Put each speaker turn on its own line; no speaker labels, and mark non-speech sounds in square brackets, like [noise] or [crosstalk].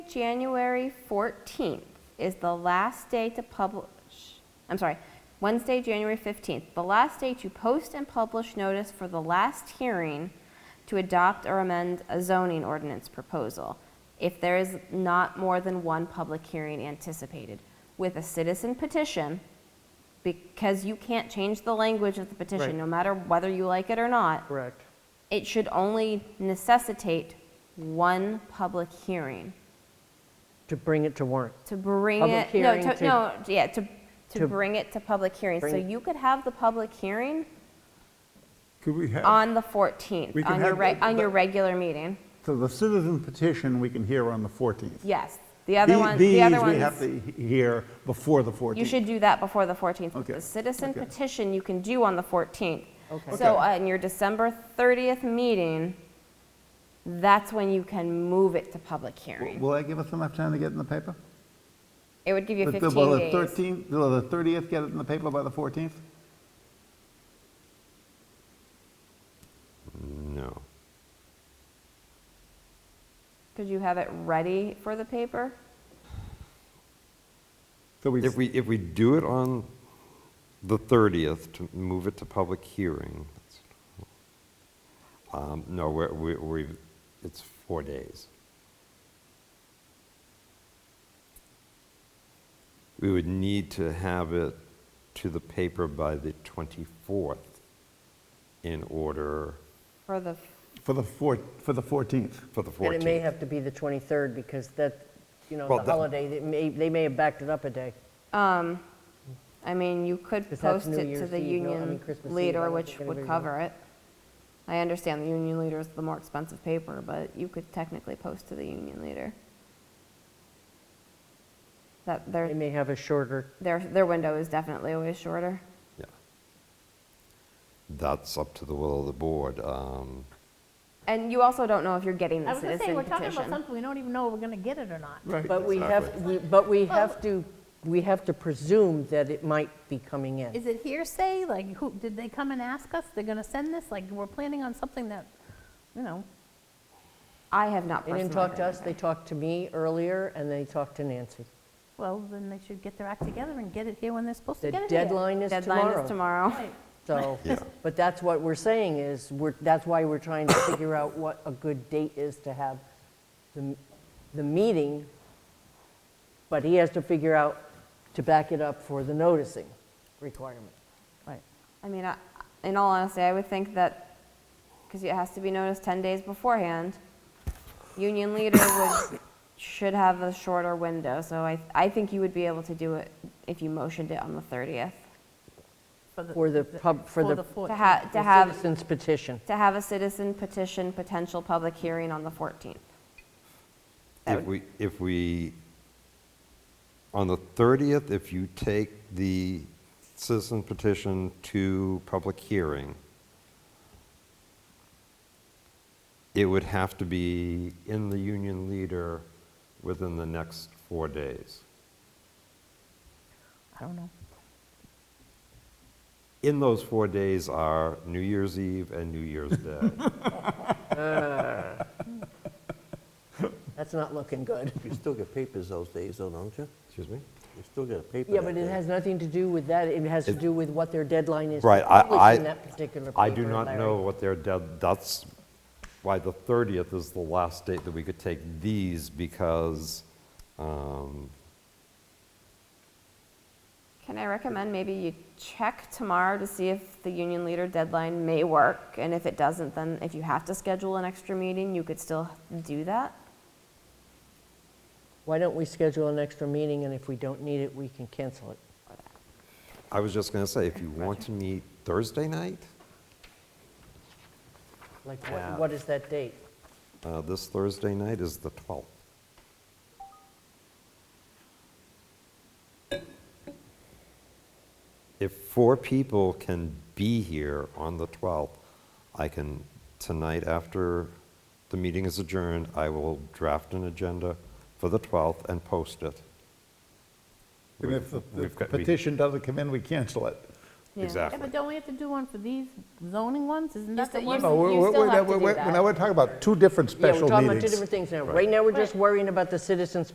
January 14th is the last day to publish, I'm sorry, Wednesday, January 15th, the last day to post and publish notice for the last hearing to adopt or amend a zoning ordinance proposal if there is not more than one public hearing anticipated with a citizen petition, because you can't change the language of the
Right.
petition, no matter whether you like it or not
Correct.
it should only necessitate one public hearing
To bring it to warrant.
to bring
Public
it, no,
hearing
to-
to-
no, yeah, to, to
to
bring it to public hearing. So
bring-
you could have the public hearing
Could we have,
on the 14th,
We can
on your,
have
re-
the-
on your
the-
regular meeting.
so the citizen petition we can hear on the 14th.
Yes. The other
The-
one, the other
These we have
ones,
to he- hear before the 14th.
you should do that before the 14th. but
Okay,
The citizen
okay.
petition you can do on the 14th.
Okay.
So
Okay.
on your December 30th meeting, that's when you can move it to public hearing.
Will that give us enough time to get it in the paper?
It would give you
The-
15 days.
Will the 13th, will the 30th get it in the paper by the 14th?
No.
Could you have it ready for the paper?
So we,
If we, if we do it on the 30th, to move it to public hearing, um, no, we're, we- we've, it's four days. We would need to have it to the paper by the 24th in order
For the,
for the 4, for the 14th.
for the 14th.
And it may have to be the 23rd because that, you know,
Well,
the
that-
holiday, they may, they may have backed it up a day.
I mean, you could
'Cause that's
post
New
it to
Year's
the
Eve, no, I
union
mean Christmas Eve, I
leader,
don't
which
think anybody
would
would.
cover it. I understand the union leader is the more expensive paper, but you could technically post to the union leader. That,
They
their,
may have a shorter,
their, their window is definitely always shorter.
Yeah. That's up to the will of the board. um,
And you also don't know if you're getting the
I was gonna say,
citizen
we're talking about
petition.
something, we don't even know if we're gonna get it or not.
Right.
but we have,
Exactly.
we- but we have to, we have to presume that it might be coming in.
Is it hearsay? Like, who, did they come and ask us? They're gonna send this? Like, we're planning on something that, you know,
I have not
They
personally.
didn't talk to
heard
us, they
anything.
talked to me earlier and they talked to Nancy.
well, then they should get their act together and get it here when they're supposed to
The
get it here.
deadline is
Deadline is
tomorrow.
[laughs]
tomorrow.
Right.
So,
Yeah.
but that's what we're saying is, we're, that's why we're trying to figure out what a good date is to have the, the meeting. But he has to figure out to back it up for the noticing requirement.
Right.
I mean, I- in all honesty, I would think that, because it has to be noticed 10 days beforehand, union leader would, should have a shorter window, so I, I think you would be able to do it if you motioned it on the 30th.
For the pub- for the-
fourth.
To have, to
The
have,
Citizens petition.
to have a citizen petition potential public hearing on the 14th. That
If we, if we, on the 30th, if you take the citizen petition to public hearing, it would have to be in the union leader within the next four days.
I don't know.
In those four days are New Year's Eve and New Year's
[laughs]
Day.
That's not looking good.
You still get papers those days, though, don't you?
Excuse me?
You still get a paper.
Yeah,
that
but it
day.
has nothing to do with that. It has to do with what their deadline is. for
Right, I-
Publishing
I-
that particular paper.
I do not
Larry.
know what their dead, that's why the 30th is the last date that we could take these because, um,
Can I recommend maybe you check tomorrow to see if the union leader deadline may work? And if it doesn't, then if you have to schedule an extra meeting, you could still do that?
Why don't we schedule an extra meeting, and if we don't need it, we can cancel it?
I was just going to say, if you want to meet Thursday night,
Like, what- what is that date?
uh, this Thursday night is the 12th. If four people can be here on the 12th, I can, tonight after the meeting is adjourned, I will draft an agenda for the 12th and post it.
Even if the-
We've
the
got- we-
petition doesn't come in, we cancel it.
Yeah.
Yeah,
Exactly.
but don't we have to do one for these zoning ones? Isn't that the
still-
one?
you
No, Oh, we're-
you
we're-
still
we're-
have to
we're-
do
we're-
that.
Now, we're talking about two different
Yeah,
special
we're
meetings.
talking about two different things now. Right now, we're just worrying about the citizens'